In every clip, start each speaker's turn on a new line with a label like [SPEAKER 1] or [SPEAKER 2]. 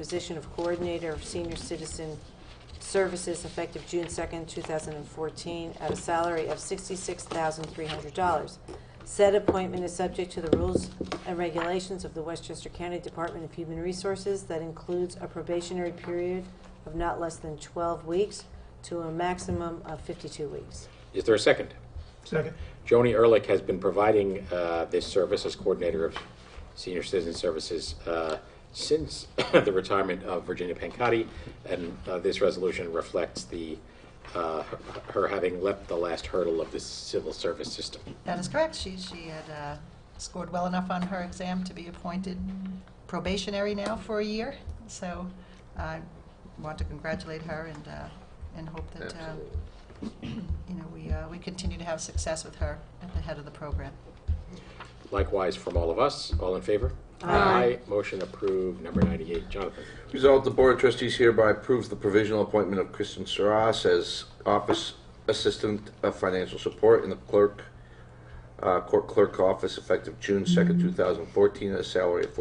[SPEAKER 1] position of Coordinator of Senior Citizen Services effective June 2nd, 2014, at a salary of $66,300. Said appointment is subject to the rules and regulations of the Westchester County Department of Human Resources that includes a probationary period of not less than 12 weeks to a maximum of 52 weeks.
[SPEAKER 2] Is there a second?
[SPEAKER 3] Second.
[SPEAKER 2] Joni Ehrlich has been providing uh, this service as coordinator of senior citizen services uh, since the retirement of Virginia Pancati, and uh, this resolution reflects the uh, her- her having leapt the last hurdle of the civil service system.
[SPEAKER 4] That is correct. She, she had uh, scored well enough on her exam to be appointed probationary now for a year. So I want to congratulate her and, uh, and hope that, uh, you know, we, uh, we continue to have success with her at the head of the program.
[SPEAKER 2] Likewise, from all of us, all in favor?
[SPEAKER 1] Aye.
[SPEAKER 2] Motion approved. Number 98, Jonathan.
[SPEAKER 5] Resolved, the Board of Trustees hereby approves the provisional appointment of Kristen Saras as Office Assistant of Financial Support in the Clerk, uh, Court Clerk Office effective June 2nd, 2014, at a salary of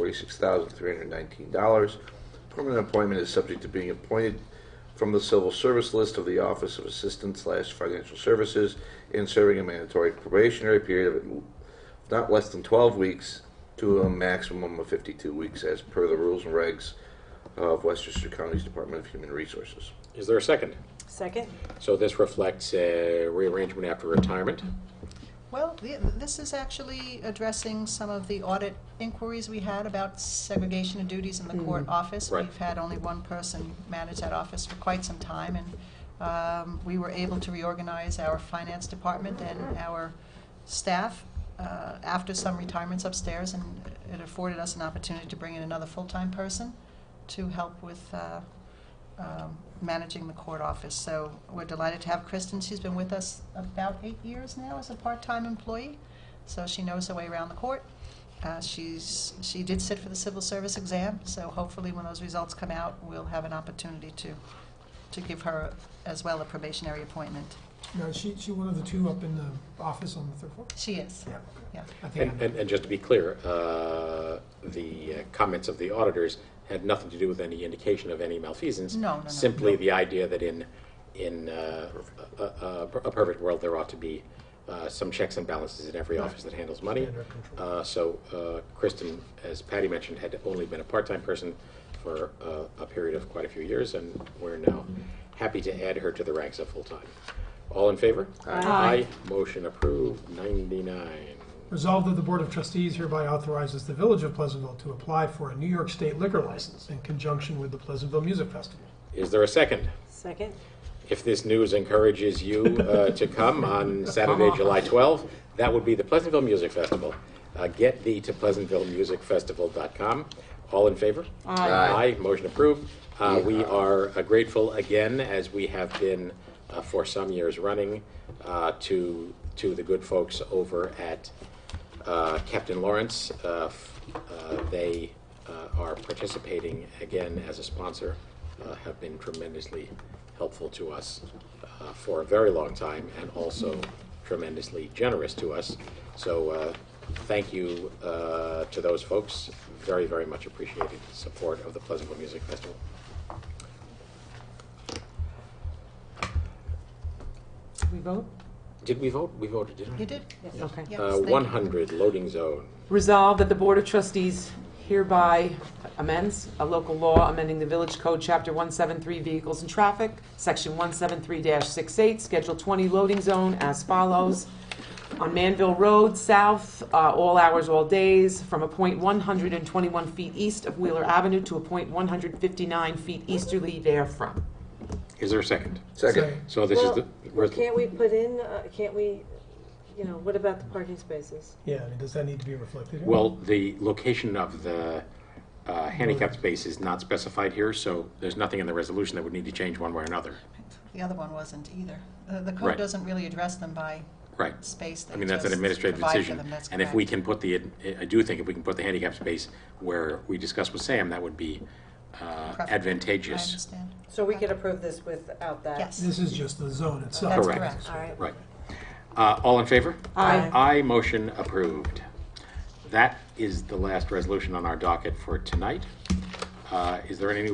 [SPEAKER 5] $46,319. Permanent appointment is subject to being appointed from the civil service list of the Office of Assistant slash Financial Services and serving a mandatory probationary period of not less than 12 weeks to a maximum of 52 weeks as per the rules and regs of Westchester County's Department of Human Resources.
[SPEAKER 2] Is there a second?
[SPEAKER 1] Second?
[SPEAKER 2] So this reflects a rearrangement after retirement.
[SPEAKER 4] Well, th- this is actually addressing some of the audit inquiries we had about segregation of duties in the court office.
[SPEAKER 2] Right.
[SPEAKER 4] We've had only one person manage that office for quite some time, and um, we were able to reorganize our finance department and our staff uh, after some retirements upstairs, and it afforded us an opportunity to bring in another full-time person to help with uh, um, managing the court office. So we're delighted to have Kristen. She's been with us about eight years now as a part-time employee, so she knows her way around the court. Uh, She's, she did sit for the civil service exam, so hopefully when those results come out, we'll have an opportunity to, to give her as well a probationary appointment.
[SPEAKER 3] No, she, she one of the two up in the office on the third floor?
[SPEAKER 4] She is,
[SPEAKER 3] Yeah.
[SPEAKER 4] yeah.
[SPEAKER 3] I think I
[SPEAKER 2] And,
[SPEAKER 3] know.
[SPEAKER 2] and, and just to be clear, uh, the uh, comments of the auditors had nothing to do with any indication of any malfeasance.
[SPEAKER 4] No, no, no.
[SPEAKER 2] Simply the idea that in, in uh, a, a, a perfect world, there ought to be uh, some checks and balances in every office that handles money.
[SPEAKER 3] Standard control.
[SPEAKER 2] Uh, so uh, Kristen, as Patty mentioned, had only been a part-time person for uh, a period of quite a few years, and we're now happy to add her to the ranks of full-time. All in favor?
[SPEAKER 1] Aye.
[SPEAKER 2] Motion approved, 99.
[SPEAKER 3] Resolved that the Board of Trustees hereby authorizes the Village of Pleasantville to apply for a New York State liquor license in conjunction with the Pleasantville Music Festival.
[SPEAKER 2] Is there a second?
[SPEAKER 1] Second?
[SPEAKER 2] If this news encourages you uh, to come on Saturday, July 12th, that would be the Pleasantville Music Festival. Uh, Get thee to pleasantvillemusicfestival.com. All in favor? Aye. Motion approved. Uh, We are uh, grateful again, as we have been uh, for some years running, uh, to, to the good folks over at uh, Captain Lawrence. Uh, f- uh, They uh, are participating again as a sponsor, uh, have been tremendously helpful to us uh, for a very long time, and also tremendously generous to us. So uh, thank you uh, to those folks. Very, very much appreciated support of the Pleasantville Music Festival.
[SPEAKER 1] We vote?
[SPEAKER 2] Did we vote? We voted, didn't we?
[SPEAKER 4] You did?
[SPEAKER 6] Okay.
[SPEAKER 4] Yes,
[SPEAKER 2] Uh,
[SPEAKER 4] thank you.
[SPEAKER 2] 100, loading zone.
[SPEAKER 6] Resolved that the Board of Trustees hereby amends a local law amending the Village Code, Chapter 173, Vehicles and Traffic, Section 173-68, Schedule 20, Loading Zone, as follows. On Manville Road South, uh, all hours, all days, from a point 121 feet east of Wheeler Avenue to a point 159 feet easterly therefrom.
[SPEAKER 2] Is there a second?
[SPEAKER 5] Second.
[SPEAKER 2] So this is the.
[SPEAKER 1] Well, can't we put in, uh, can't we, you know, what about the parking spaces?
[SPEAKER 3] Yeah, I mean, does that need to be reflected here?
[SPEAKER 2] Well, the location of the uh, handicap space is not specified here, so there's nothing in the resolution that would need to change one way or another.
[SPEAKER 4] The other one wasn't either. The- The
[SPEAKER 2] Right.
[SPEAKER 4] code doesn't really address them by
[SPEAKER 2] Right.
[SPEAKER 4] space. They
[SPEAKER 2] I mean, that's an
[SPEAKER 4] just
[SPEAKER 2] administrative
[SPEAKER 4] provide for
[SPEAKER 2] decision.
[SPEAKER 4] them. That's
[SPEAKER 2] And if we can
[SPEAKER 4] correct.
[SPEAKER 2] put the, I do think if we can put the handicap space where we discussed with Sam, that would be uh,
[SPEAKER 4] Preferable. I
[SPEAKER 2] advantageous.
[SPEAKER 4] understand.
[SPEAKER 1] So we could approve this without that?
[SPEAKER 4] Yes.
[SPEAKER 3] This is just the zone itself.
[SPEAKER 4] That's
[SPEAKER 2] Correct.
[SPEAKER 4] correct.
[SPEAKER 1] All right.
[SPEAKER 2] Right. Uh, All in favor?
[SPEAKER 1] Aye.
[SPEAKER 2] Aye, motion approved. That is the last resolution on our docket for tonight. Uh, Is there any new